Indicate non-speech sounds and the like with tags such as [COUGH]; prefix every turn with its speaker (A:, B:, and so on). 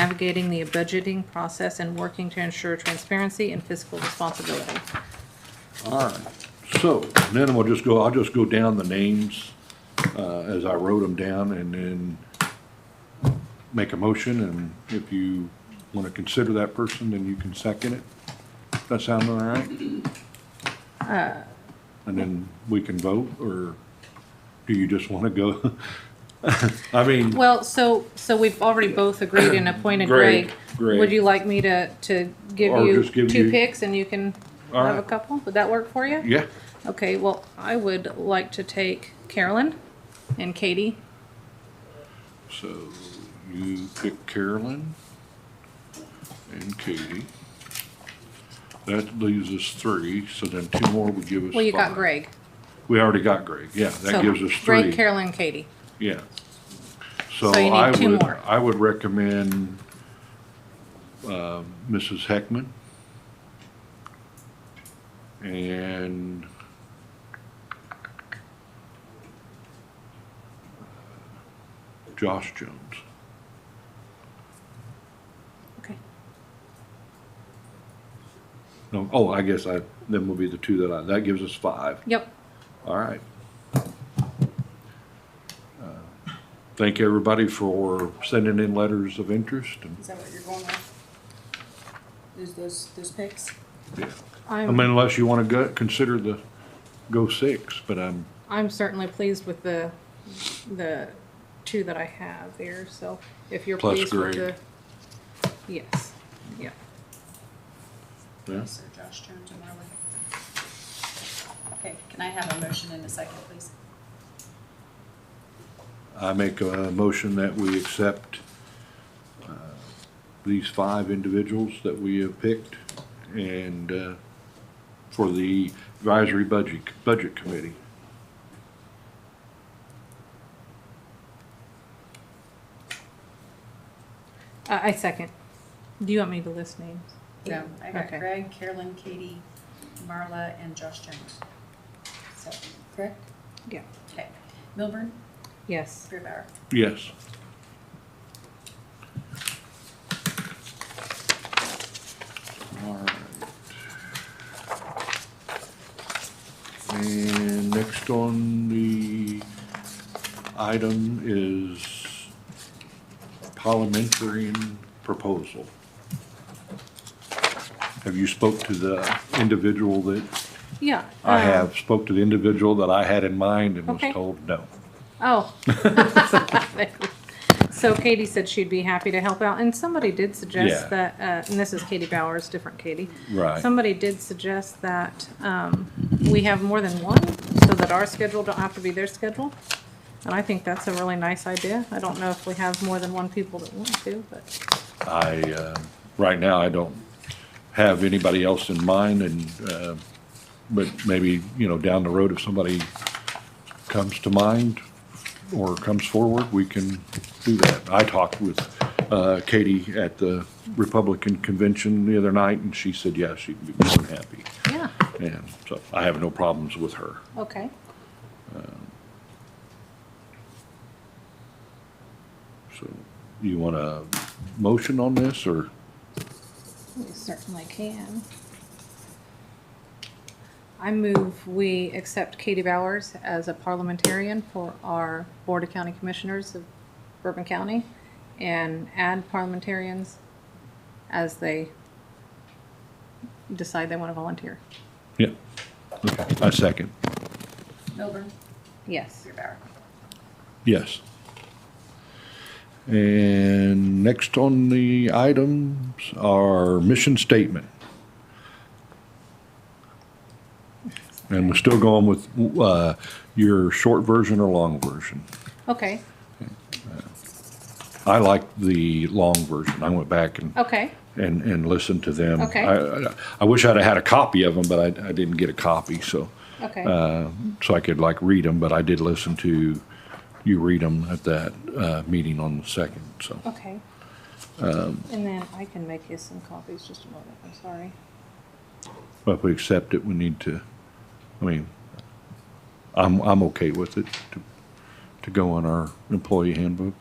A: navigating the budgeting process and working to ensure transparency and fiscal responsibility.
B: All right, so then we'll just go, I'll just go down the names uh, as I wrote them down and then make a motion, and if you want to consider that person, then you can second it. Does that sound all right? And then we can vote, or do you just want to go? [LAUGHS] I mean,
A: Well, so, so we've already both agreed and appointed
B: Greg,
A: Greg.
B: Greg.
A: Would you like me to, to give
B: Or
A: you
B: just give
A: two
B: you-
A: picks and you can
B: All
A: have a
B: right.
A: couple? Would that work for you?
B: yeah,
A: Okay, well, I would like to take Carolyn and Katie.
B: so you pick Carolyn and Katie. That leaves us three, so then two more would give us
A: Well, you got
B: five.
A: Greg.
B: We already got Greg, yeah,
A: So
B: that gives us
A: Greg,
B: three,
A: Carolyn, Katie.
B: yeah.
A: So you need
B: I
A: two
B: would-
A: more.
B: I would recommend, um, Mrs. Heckman. And. uh, Josh Jones.
A: Okay.
B: No, oh, I guess I, then will be the two that I, that gives us five.
A: Yep.
B: All right. Uh, Thank everybody for sending in letters of interest and,
C: Is that what you're going with? Is those, those picks?
B: I
A: I'm,
B: mean, unless you want to go, consider the, go six, but I'm,
A: I'm certainly pleased with the, the two that I have here, so if you're
B: Plus
A: pleased with the.
B: Greg.
A: Yes, yeah.
B: yeah.
C: So Josh Jones and Marley. Okay, can I have a motion in a second, please?
B: I make a motion that we accept uh, these five individuals that we have picked and, uh, for the advisory budget, budget committee.
A: I, I second. Do you want me to list names?
C: No, I got
A: Okay.
C: Greg, Carolyn, Katie, Marla, and Josh Jones. So, correct?
A: Yeah.
C: Okay. Milburn,
A: Yes.
C: Beerbauer.
B: Yes. All right. And next on the item is parliamentarian proposal. Have you spoke to the individual that,
A: Yeah.
B: I
A: um,
B: have spoke to the individual that I had in mind and was
A: Okay.
B: told no. [LAUGHS]
A: Oh. So Katie said she'd be happy to help out, and somebody did
B: Yeah.
A: suggest that, uh, and this is Katie Bowers, different Katie.
B: Right.
A: Somebody did suggest that, um, we have more than one, so that our schedule don't have to be their schedule. And I think that's a really nice idea. I don't know if we have more than one people that want to, but,
B: I, uh, right now, I don't have anybody else in mind and, uh, but maybe, you know, down the road, if somebody comes to mind or comes forward, we can do that. I talked with uh, Katie at the Republican Convention the other night and she said, yeah, she'd be more than happy.
A: yeah,
B: And so I have no problems with her.
A: okay.
B: So you want a motion on this or?
A: We certainly can. I move we accept Katie Bowers as a parliamentarian for our Board of County Commissioners of Bourbon County and add parliamentarians as they decide they want to volunteer.
B: Yeah. Okay, I second.
C: Milburn,
A: Yes.
C: Beerbauer.
B: Yes. And next on the items are mission statement. And we're still going with uh, your short version or long version.
A: Okay,
B: I like the long version. I went back and,
A: okay,
B: and, and listened to them.
A: Okay.
B: I, I- I wish I'd have had a copy of them, but I, I didn't get a copy, so,
A: okay.
B: uh, so I could like read them, but I did listen to you read them at that uh, meeting on the second, so.
A: Okay. And then I can make you some copies, just a moment, I'm sorry.
B: Well, if we accept it, we need to, I mean, I'm, I'm okay with it to, to go on our employee handbook.